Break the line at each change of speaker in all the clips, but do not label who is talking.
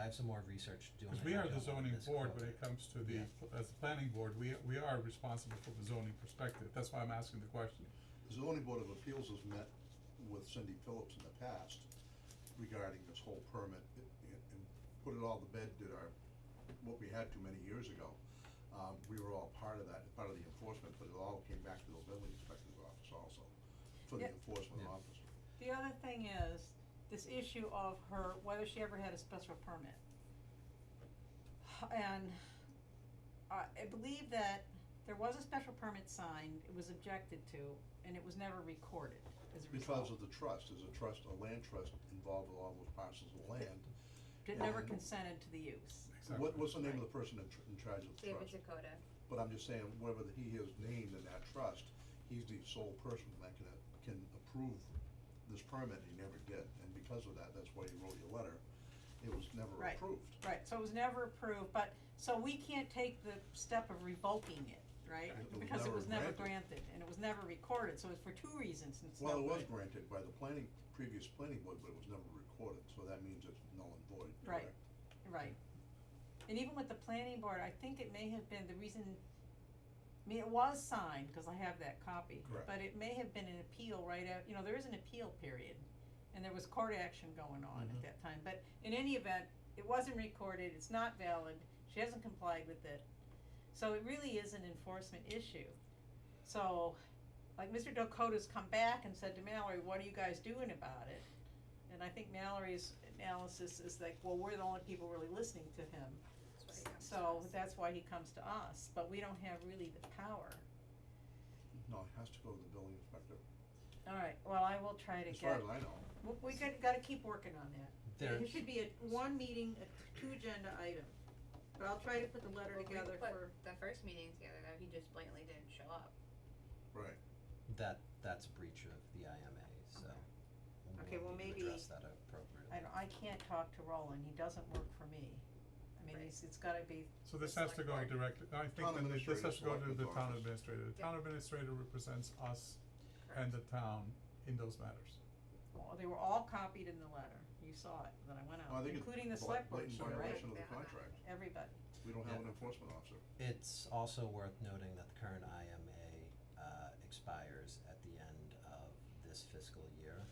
have some more research to do.
Cause
on
we
it. I
are the
don't want
zoning
this
board
clogged
when
up.
it comes to the,
Yeah.
pl- as the planning board, we, we are responsible for the zoning perspective, that's why I'm asking the question.
The zoning board of appeals has met with Cindy Phillips in the past regarding this whole permit i- i- and put it all to bed, did our, what we had too many years ago. Um, we were all part of that, part of the enforcement, but it all came back to the building inspector's office also, for the
Yeah.
enforcement
Yeah.
officer.
The other thing is, this issue of her, whether she ever had a special permit. And I, I believe that there was a special permit signed, it was objected to, and it was never recorded as a result.
Because of the trust, there's a trust, a land trust involved with all those parcels of land.
It never
and-
consented to the use.
What, what's the name of
Right.
the person in, tr- in charge of the
David
trust?
Dakota.
But I'm just saying, whatever that he is named in that trust, he's the sole person that can, can approve this permit, he never did, and because of that, that's why he wrote your letter, it was never
Right.
approved.
Right, so it was never approved, but, so we can't take the step of revoking it, right?
It was
Because it
never
was never
granted.
granted, and it was never recorded, so it's for two reasons, and it's
Well, it
no
was
good.
granted by the planning, previous planning board, but it was never recorded, so that means it's null and void,
Right.
correct?
Right. And even with the planning board, I think it may have been the reason, I mean, it was signed, cause I have that copy.
Correct.
But it may have been an appeal right out, you know, there is an appeal period, and there was court action going on
Mhm.
at that time, but in any event, it wasn't recorded, it's not valid, she hasn't complied with it. So it really is an enforcement issue. So, like Mr. Dakota's come back and said to Mallory, what are you guys doing about it? And I think Mallory's analysis is like, well, we're the only people really listening to him,
That's what he comes
so
to us.
that's why he comes to us, but we don't have really the power.
No, it has to go to the building inspector,
Alright, well, I will try to
as far
get,
as I know.
we, we gotta, gotta keep working on that.
There,
It should be a one meeting, a t- two agenda item, but I'll try to put the letter
Well, we
together
put
for,
The first meeting together, though, he just blatantly didn't show up.
Right.
that, that's breach of the IMA, so. we'll
Okay, well,
need to
maybe-
Address that appropriately.
I don't, I can't talk to Roland, he doesn't work for me. I mean,
Right.
it's, it's gotta be,
So this
The
has to go
select board.
directly, I
Town
think that this- this
administrator,
has to go to
selectmen's
the town
office.
administrator, the town administrator represents us and the town in those matters.
well, they were all copied in the letter, you saw it, when I went
Well, I
out,
think it's
including the
bla-
select board,
blatant
chair, right?
violation of the
Yeah.
contract,
Everybody.
we don't have
Yeah.
an enforcement officer.
It's also worth noting that the current IMA uh, expires at the end of this fiscal year.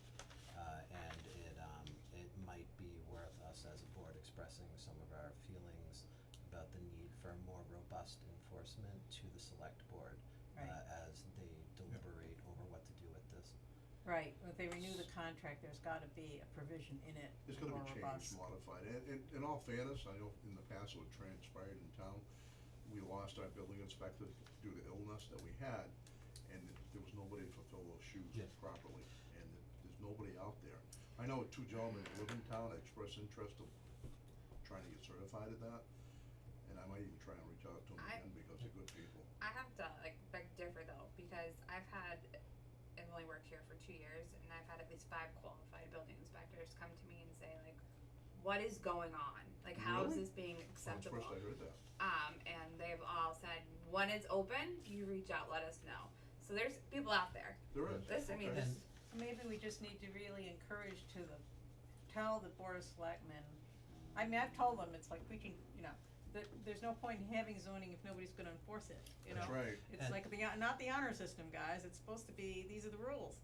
Uh, and it, um, it might be worth us as a board expressing some of our feelings about the need for more robust enforcement to the select board
Right.
uh, as they deliberate over what to do with this.
Right, if they renew the contract, there's gotta be a provision in it
It's gonna
more
be
robust.
changed, modified, and, and in all fairness, I know in the past what transpired in town, we lost our building inspector due to illness that we had, and there was nobody to fulfill those shoes
Yeah.
properly, and there's nobody out there. I know two gentlemen that live in town, that expressed interest of trying to get certified at that, and I might even try and reach out to them
I-
again, because they're good people.
I have to like beg to differ though, because I've had, I've only worked here for two years, and I've had at least five qualified building inspectors come to me and say like, "What is going on? Like, how is
Really?
this being
When
acceptable?"
First I heard that,
Um, and they've all said, "When it's open, you reach out, let us know." So there's people out there.
there is,
This, I mean,
okay.
this,
So Maybe we just need to really encourage to the, tell the board of selectmen, I mean, I've told them, it's like preaching, you know, that there's no point in having zoning if nobody's gonna enforce it, you know?
that's right,
It's
And-
like the, hon- not the honor system, guys, it's supposed to be, these are the rules,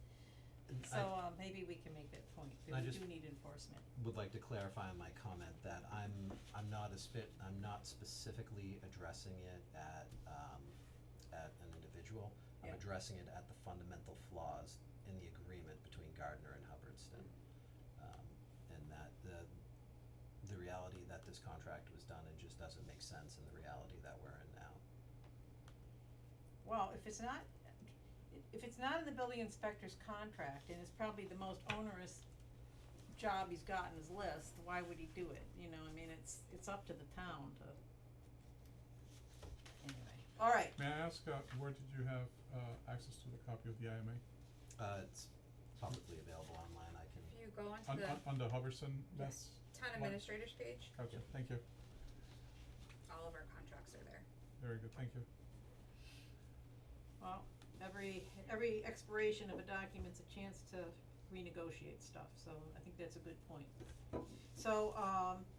And Mm, I-
so, um, maybe we can make that point,
I
that we
just-
do need enforcement.
would like to clarify in my comment that I'm, I'm not as fit, I'm not specifically addressing it at, um, at an individual. I'm
Yeah.
addressing it at the fundamental flaws in the agreement between Gardner and Hubbardston. Um, and that the, the reality that this contract was done, it just doesn't make sense in the reality that we're in now.
Well, if it's not, if it's not in the building inspector's contract, and it's probably the most onerous job he's got in his list, why would he do it, you know, I mean, it's, it's up to the town to. Anyway, alright,
May I ask, uh, where did you have, uh, access to the copy of the IMA?
Uh, it's publicly available online, I can,
if you go
On,
onto the
on, on the Hubbardson, that's,
town
one-
administrators page,
gotcha, thank you,
all of our contracts are there.
very good, thank you.
well, every, every expiration of a document's a chance to renegotiate stuff, so I think that's a good point. So, um,